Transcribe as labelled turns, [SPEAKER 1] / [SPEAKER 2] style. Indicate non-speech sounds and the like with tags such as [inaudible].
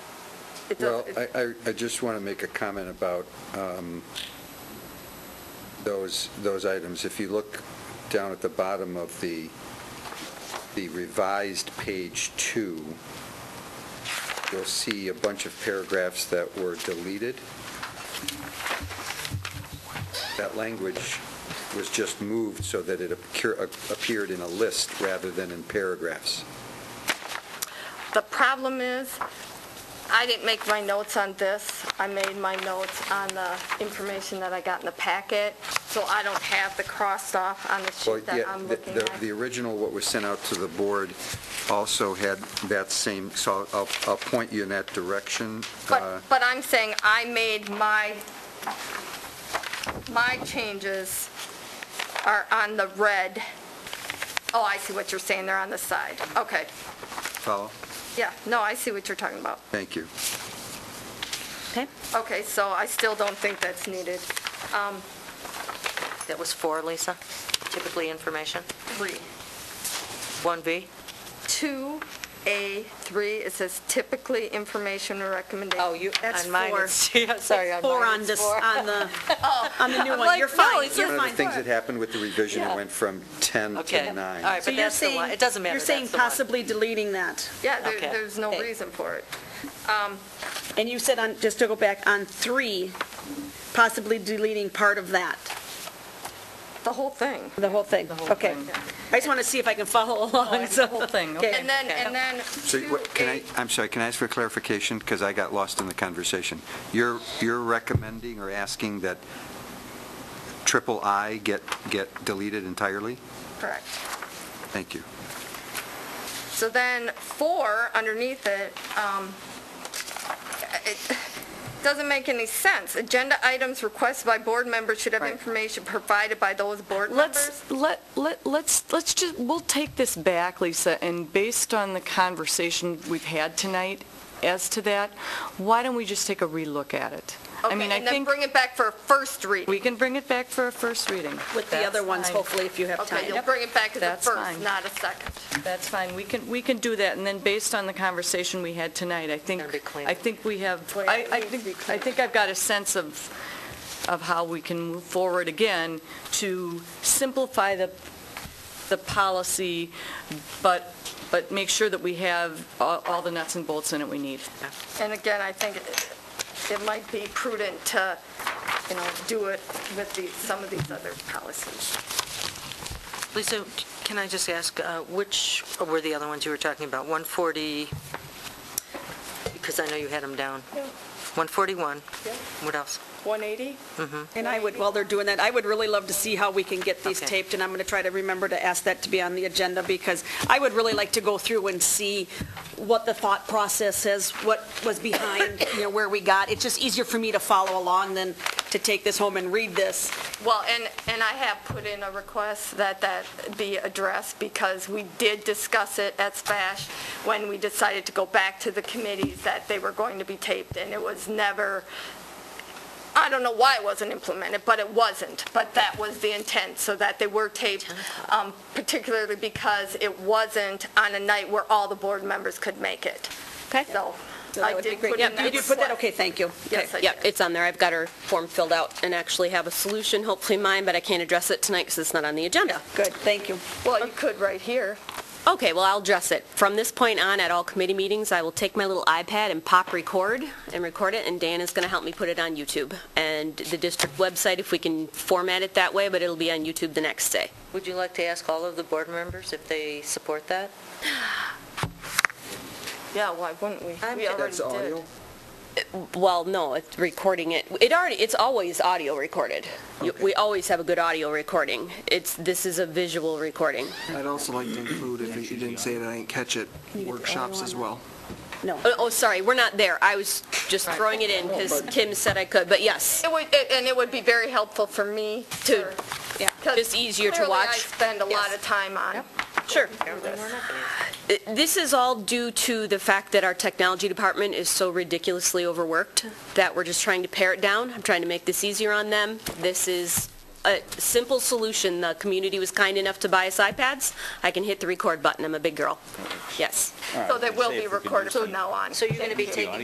[SPEAKER 1] It
[SPEAKER 2] Well,
[SPEAKER 1] does, it-
[SPEAKER 2] I, I- I just want to make a comment about um, those, those items. If you look down at the bottom of the, the revised page two, you'll see a bunch of paragraphs that were deleted. That language was just moved so that it appear- appeared in a list rather than in paragraphs.
[SPEAKER 1] the problem is, I didn't make my notes on this. I made my notes on the information that I got in the packet, so I don't have the crossed off on the
[SPEAKER 2] Well,
[SPEAKER 1] sheet that
[SPEAKER 2] yeah,
[SPEAKER 1] I'm
[SPEAKER 2] the-
[SPEAKER 1] looking
[SPEAKER 2] the-
[SPEAKER 1] at.
[SPEAKER 2] The original, what was sent out to the board, also had that same, so I'll, I'll point you in that direction. Uh,
[SPEAKER 1] But, but I'm saying I made my, my changes are on the red. Oh, I see what you're saying, they're on the side. Okay,
[SPEAKER 2] Follow?
[SPEAKER 1] yeah, no, I see what you're talking about.
[SPEAKER 2] Thank you.
[SPEAKER 3] Okay,
[SPEAKER 1] Okay, so I still don't think that's needed. Um,
[SPEAKER 3] that was four, Lisa, typically information.
[SPEAKER 1] Three.
[SPEAKER 3] 1B?
[SPEAKER 1] 2A3, it says typically information or recommendation.
[SPEAKER 3] Oh,
[SPEAKER 4] Oh,
[SPEAKER 3] That's four. [laughs] Sorry, on
[SPEAKER 5] Four
[SPEAKER 3] mine
[SPEAKER 5] on
[SPEAKER 3] it's
[SPEAKER 5] this,
[SPEAKER 3] four. [laughs]
[SPEAKER 5] on the, on the new
[SPEAKER 1] I'm
[SPEAKER 5] one.
[SPEAKER 1] like,
[SPEAKER 5] You're
[SPEAKER 1] no,
[SPEAKER 5] fine,
[SPEAKER 1] it's
[SPEAKER 5] you're
[SPEAKER 2] One of the
[SPEAKER 5] fine.
[SPEAKER 2] things that happened with the revision, it
[SPEAKER 3] Yeah.
[SPEAKER 2] went from 10
[SPEAKER 3] Okay,
[SPEAKER 2] to
[SPEAKER 3] all
[SPEAKER 2] 9.
[SPEAKER 3] right,
[SPEAKER 5] So
[SPEAKER 3] but
[SPEAKER 5] you're
[SPEAKER 3] that's the
[SPEAKER 5] saying-
[SPEAKER 3] one, it doesn't matter,
[SPEAKER 5] You're saying
[SPEAKER 3] that's the one.
[SPEAKER 5] possibly deleting that.
[SPEAKER 1] Yeah, there-
[SPEAKER 3] Okay.
[SPEAKER 1] there's no
[SPEAKER 3] Hey.
[SPEAKER 1] reason for it.
[SPEAKER 5] And you said on, just to go back, on three, possibly deleting part of that,
[SPEAKER 1] The whole thing.
[SPEAKER 5] the whole thing. Okay. I just want to see if I can follow [laughs]
[SPEAKER 3] Oh,
[SPEAKER 5] along, so.
[SPEAKER 3] whole thing,
[SPEAKER 5] okay.
[SPEAKER 1] And then, and then
[SPEAKER 2] So what- can I,
[SPEAKER 1] 2A,
[SPEAKER 2] I'm sorry, can I ask for clarification? Because I got lost in the conversation. You're, you're recommending or asking that triple I get, get deleted entirely?
[SPEAKER 1] correct.
[SPEAKER 2] Thank you.
[SPEAKER 1] So then, four, underneath it, um, it doesn't make any sense. Agenda items requested by board members should have
[SPEAKER 3] Right.
[SPEAKER 1] information provided by those board members.
[SPEAKER 4] Let's, let, let, let's, let's just, we'll take this back, Lisa, and based on the conversation we've had tonight as to that, why don't we just take a relook at it? I mean,
[SPEAKER 1] Okay,
[SPEAKER 4] I
[SPEAKER 1] and then
[SPEAKER 4] think
[SPEAKER 1] bring it back for a first reading.
[SPEAKER 4] we can bring it back for a first reading.
[SPEAKER 5] With the other ones, hopefully, if you have
[SPEAKER 1] Okay,
[SPEAKER 5] time.
[SPEAKER 1] you'll bring it back as a
[SPEAKER 4] That's
[SPEAKER 1] first,
[SPEAKER 4] fine.
[SPEAKER 1] not a second.
[SPEAKER 4] That's fine, we can, we can do that, and then based on the conversation we had tonight, I think,
[SPEAKER 3] Gotta be clean.
[SPEAKER 4] I think we have,
[SPEAKER 5] Well,
[SPEAKER 4] I, I
[SPEAKER 5] it needs to be
[SPEAKER 4] think, I
[SPEAKER 5] clean.
[SPEAKER 4] think I've got a sense of, of how we can move forward again to simplify the, the policy, but, but make sure that we have all all the nuts and bolts in it we need.
[SPEAKER 1] And again, I think it- it might be prudent to, you know, do it with the, some of these other policies.
[SPEAKER 3] Lisa, c- can I just ask, uh, which were the other ones you were talking about? 140, because I know you had them down. 141,
[SPEAKER 1] Yeah.
[SPEAKER 3] what else?
[SPEAKER 1] 180?
[SPEAKER 5] And I would, while they're doing that, I would really love to see how we can get these
[SPEAKER 3] Okay.
[SPEAKER 5] taped, and I'm going to try to remember to ask that to be on the agenda, because I would really like to go through and see what the thought process is, what was behind, you know, where we got. It's just easier for me to follow along than to take this home and read this.
[SPEAKER 1] Well, and, and I have put in a request that that be addressed because we did discuss it at SPASH when we decided to go back to the committees that they were going to be taped and it was never, I don't know why it wasn't implemented, but it wasn't. But that was the intent, so that they were taped, um, particularly because it wasn't on a night where all the board members could make it.
[SPEAKER 6] Okay.
[SPEAKER 1] So
[SPEAKER 5] So that
[SPEAKER 1] I
[SPEAKER 5] would be
[SPEAKER 1] did
[SPEAKER 5] great.
[SPEAKER 1] put in that.
[SPEAKER 5] You did put that, okay, thank you. Okay.
[SPEAKER 1] Yes, I
[SPEAKER 6] Yep,
[SPEAKER 1] did.
[SPEAKER 6] it's on there. I've got her form filled out and actually have a solution, hopefully mine, but I can't address it tonight because it's not on the agenda.
[SPEAKER 5] Good, thank you.
[SPEAKER 1] Well, you could right here.
[SPEAKER 6] Okay, well, I'll address it. From this point on, at all committee meetings, I will take my little iPad and pop record and record it, and Dan is going to help me put it on YouTube. And the district website, if we can format it that way, but it'll be on YouTube the next day.
[SPEAKER 3] Would you like to ask all of the board members if they support that?
[SPEAKER 1] Yeah, why wouldn't we?
[SPEAKER 3] I'm-
[SPEAKER 1] We already
[SPEAKER 3] That's
[SPEAKER 1] did.
[SPEAKER 6] Well, no, it's recording it. It already, it's always audio recorded. You- We always have a good audio recording. It's, this is a visual recording.
[SPEAKER 7] I'd also like to include, if you didn't say it, I didn't catch it, workshops as well.
[SPEAKER 5] No.
[SPEAKER 6] Oh, Oh, sorry, we're not there. I was just throwing it in because Kim said I could, but yes,
[SPEAKER 1] It would, it- and it would be very helpful for me to,
[SPEAKER 6] to, just easier to
[SPEAKER 1] clearly I
[SPEAKER 6] watch.
[SPEAKER 1] spend a lot of time on.
[SPEAKER 6] Sure.
[SPEAKER 3] Apparently we're not gonna.
[SPEAKER 6] Uh, This is all due to the fact that our technology department is so ridiculously overworked that we're just trying to pare it down. I'm trying to make this easier on them. This is a simple solution. The community was kind enough to buy us iPads. I can hit the record button. I'm a big girl. Yes.
[SPEAKER 1] So they will be recorded from now on.
[SPEAKER 3] So you're going to be
[SPEAKER 1] Thank you.
[SPEAKER 3] taking